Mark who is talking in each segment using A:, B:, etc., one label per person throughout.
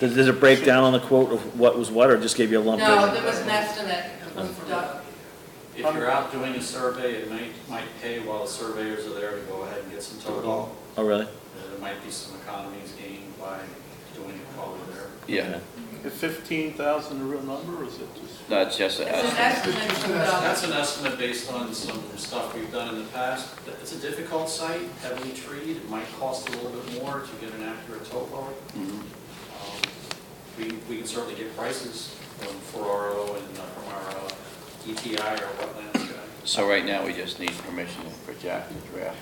A: Does, does it break down on the quote of what was what, or just gave you a lump?
B: No,
A: sum?
B: there was an estimate was done.
C: If you're out doing a survey, it might, might pay while the surveyors are there to go ahead and get some total.
A: Oh, really?
C: There might be some economies gained by doing it while we're there.
D: Yeah,
E: Is fifteen thousand a real number, or is it just?
D: that's just, a-
B: It's an estimate was done.
C: That's an estimate based on some stuff we've done in the past. It's a difficult site, heavily treed, it might cost a little bit more to get an accurate topo.
F: Mm-hmm.
D: Mhm.
C: Um, We, we can certainly get prices from for RO and uh, from our uh, ETI or wetlands guy.
D: so right now, we just need permission for Jack to draft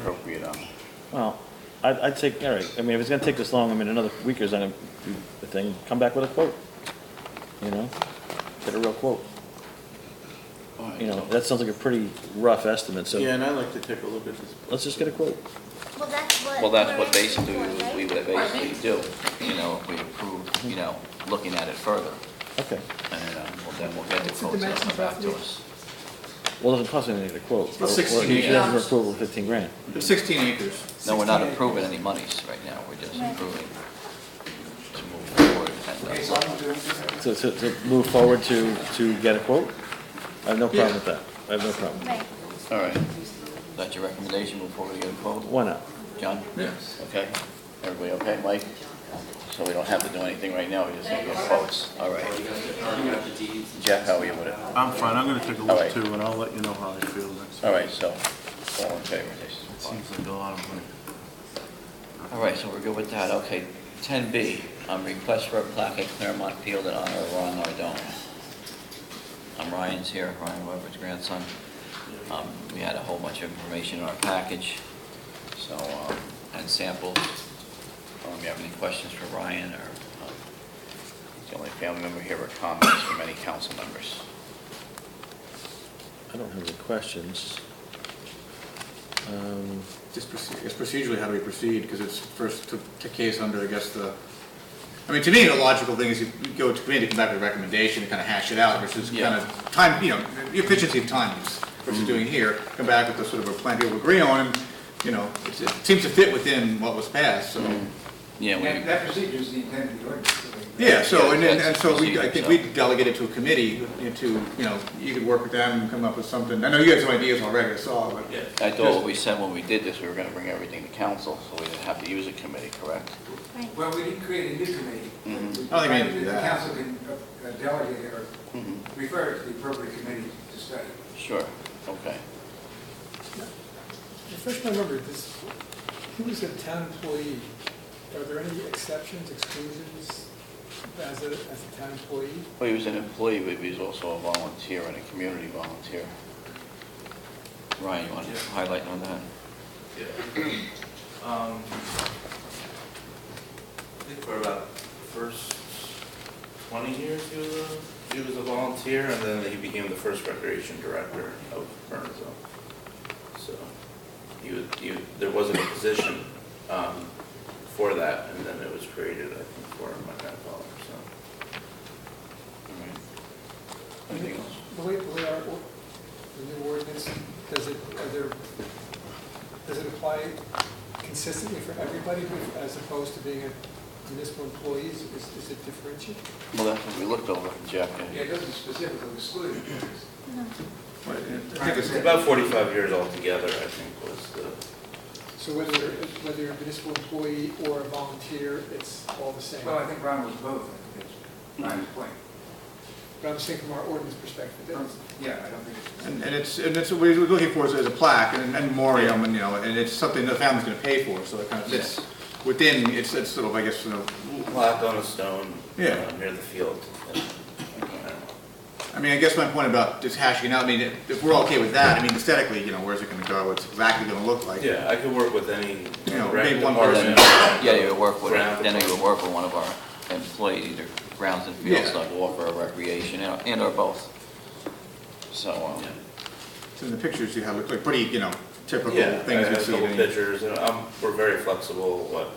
D: appropriate um, on it.
A: Well, I'd, I'd take, all right, I mean, if it's gonna take this long, I mean, another week is gonna be the thing, come back with a quote. You know, get a real quote, you know, that sounds like a pretty rough estimate,
E: Yeah,
A: so
E: and I'd like to take a look at this.
A: let's just get a quote.
G: Well, that's what.
D: Well, that's what
G: we're asking
D: basically,
G: for, right?
D: we would basically do, you know, if we approve, you know, looking at it further,
A: Okay,
D: and um, well, then we'll get the
H: What's the
D: quotes and come
H: dimensions
D: back to
H: roughly?
D: us.
A: well, it doesn't cost anything to get a quote.
H: Well,
A: Or- or
H: 16
A: you have
B: acres.
A: For approval, fifteen grand.
H: There's 16 acres.
D: No, we're not
H: 16 acres.
D: approving any monies right now, we're just
G: Right.
D: approving to move forward and that's all.
A: So, so, to move forward to, to get a quote? I have no problem with that, I have no problem.
G: Right.
D: All right, that's your recommendation before we get a quote?
A: Why not?
D: John?
H: Yes.
D: Okay, everybody okay, Mike? So we don't have to do anything right now, we just need to get quotes, all right.
C: E
D: Jeff, how are you with it?
E: I'm fine, I'm gonna take a
D: All right.
E: look too, and I'll let you know how I feel next.
D: All right, so, all in favor, this is fine.
E: Seems like a lot of money.
D: All right, so we're good with that, okay. Ten B, um, request for a plaque at Claremont Field in honor of Ron Ardon. Um, Ryan's here, Ryan Weber's grandson. Um, we had a whole bunch of information in our package, so, um, and samples. Um, you have any questions for Ryan, or, um, he's the only family member here with comments from any council members?
A: I don't have any questions. Um,
H: Just proce- it's procedurally how do we proceed, because it's first to, to case under, I guess, the, I mean, to me, the logical thing is you you go to committee, come back with a recommendation, and kind of hash it out, versus
D: Yeah. Mm-hmm.
H: kind of time, you know, the efficiency of time is what you're doing here, come back with a sort of a plan people agree on, and, you know, it's- it seems to fit within what was passed, so.
D: Mm-hmm. Yeah,
F: That
D: we,
F: that procedure is the intent of the ordinance.
H: Yeah, so, and, and and so we, I
D: Procedure,
H: think
D: so.
H: we delegate it to a committee to, you know, you could work with them and come up with something. I know you had some ideas already, I saw, but.
C: Yeah.
D: I thought what we said when we did this, we were gonna bring everything to council, so we didn't have to use a committee, correct?
G: Right.
F: Well, we didn't create a new committee.
D: Mhm.
H: I don't think we need to do
F: The
H: that.
F: council can uh, delegate it or
D: Mhm.
I: Mm-hmm.
F: refer it to the appropriate committee to study.
D: Sure, okay.
I: Refresh my memory, this, he was a town employee. Are there any exceptions, exclusions as a, as a town employee?
D: Well, he was an employee, but he was also a volunteer and a community volunteer. Ryan, you want to highlight on that?
J: Um, I think for about the first twenty years, he was a, he was a volunteer, and then he became the first recreation director of Burnsville. So, he was, he, there wasn't a position, um, for that, and then it was created, I think, for my grandfather, so.
D: All right. Anything else?
I: The way, the way our, or- the new ordinance, does it, are there, does it apply consistently for everybody with- as opposed to being a municipal employee? Is, is it differentiated?
D: Well, that's what we looked over, Jeff.
F: Yeah, it doesn't specifically exclude.
H: Right, yeah.
F: I think it's-
J: About forty-five years altogether, I think, was the,
I: So whether, whether you're a municipal employee or a volunteer, it's all the same?
F: Well, I think Ron was both, I think that's Ron's point.
I: But I'm saying from our ordinance perspective, that's-
F: Yeah, I don't think it's.
H: And and it's, and it's, what we're looking for is is a plaque and a memoriam, and, you know, and it's something the family's gonna pay for, so it kind of fits within, it's, it's sort of, I guess, you know,
J: plaque on a stone, uh,
H: Yeah.
J: near the field. and, I don't know.
H: I mean, I guess my point about just hashing it out, I mean, if we're okay with that, I mean, aesthetically, you know, where's it gonna go, what's it exactly gonna look like?
J: Yeah, I could work with any.
H: You know,
J: rec
H: maybe one
J: department.
D: Yeah, you would work with,
J: Ground
D: then you would
J: department.
D: work with one of our employees, either grounds and fields,
H: Yeah.
D: like Walker or Recreation, and and or both. So, um,
J: Yeah.
H: So in the pictures you have, look like pretty, you know, typical
J: Yeah, I
H: things
J: have
H: you
J: a
H: see.
J: couple
H: in-
J: pictures, and um, we're very flexible, what,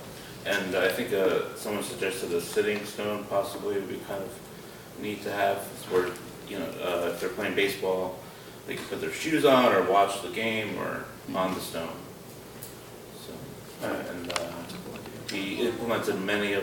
J: and I think, uh, someone suggested a sitting stone possibly would be kind of neat to have, it's where, you know, uh, if they're playing baseball, they can put their shoes on or watch the game or on the stone. So, uh, and, uh, he implemented many of